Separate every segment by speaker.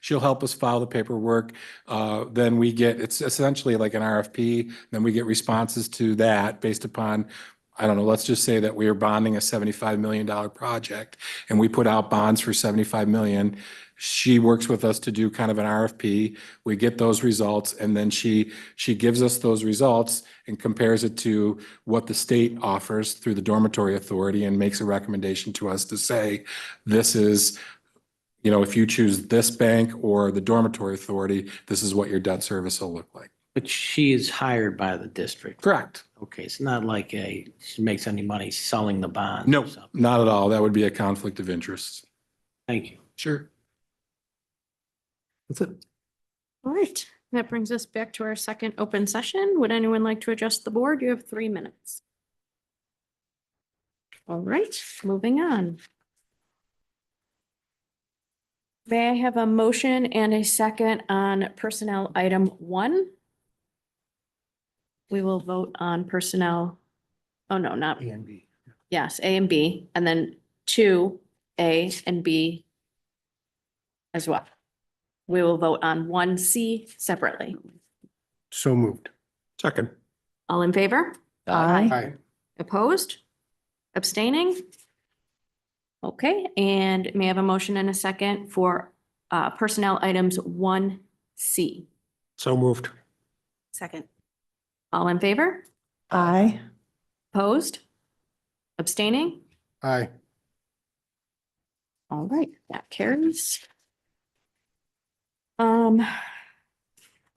Speaker 1: She'll help us file the paperwork. Uh, Then we get, it's essentially like an RFP, then we get responses to that based upon, I don't know, let's just say that we are bonding a $75 million project and we put out bonds for 75 million. She works with us to do kind of an RFP. We get those results and then she, she gives us those results and compares it to what the state offers through the dormitory authority and makes a recommendation to us to say, this is, you know, if you choose this bank or the dormitory authority, this is what your debt service will look like.
Speaker 2: But she is hired by the district.
Speaker 1: Correct.
Speaker 2: Okay, it's not like a, she makes any money selling the bonds. or
Speaker 1: No,
Speaker 2: something.
Speaker 1: not at all. That would be a conflict of interest.
Speaker 2: Thank you.
Speaker 1: Sure.
Speaker 3: That's it.
Speaker 4: All right, that brings us back to our second open session. Would anyone like to address the board? You have three minutes. All right, moving on. May I have a motion and a second on personnel item one? We will vote on personnel. Oh, no, not,
Speaker 2: and B.
Speaker 4: yes, A and B, and then two, A and B as well. We will vote on one C separately.
Speaker 3: So moved.
Speaker 1: Second.
Speaker 4: All in favor? Aye.
Speaker 3: Aye.
Speaker 4: Opposed? Abstaining? Okay, and may I have a motion and a second for uh, personnel items one C?
Speaker 3: So moved.
Speaker 4: Second. All in favor?
Speaker 3: Aye.
Speaker 4: Opposed? Abstaining?
Speaker 3: Aye.
Speaker 4: All right, that carries. Um,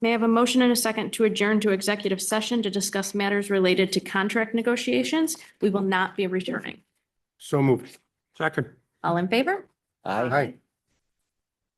Speaker 4: may I have a motion and a second to adjourn to executive session to discuss matters related to contract negotiations? We will not be returning.
Speaker 3: So moved. Second.
Speaker 4: All in favor?
Speaker 2: Aye.
Speaker 3: Aye.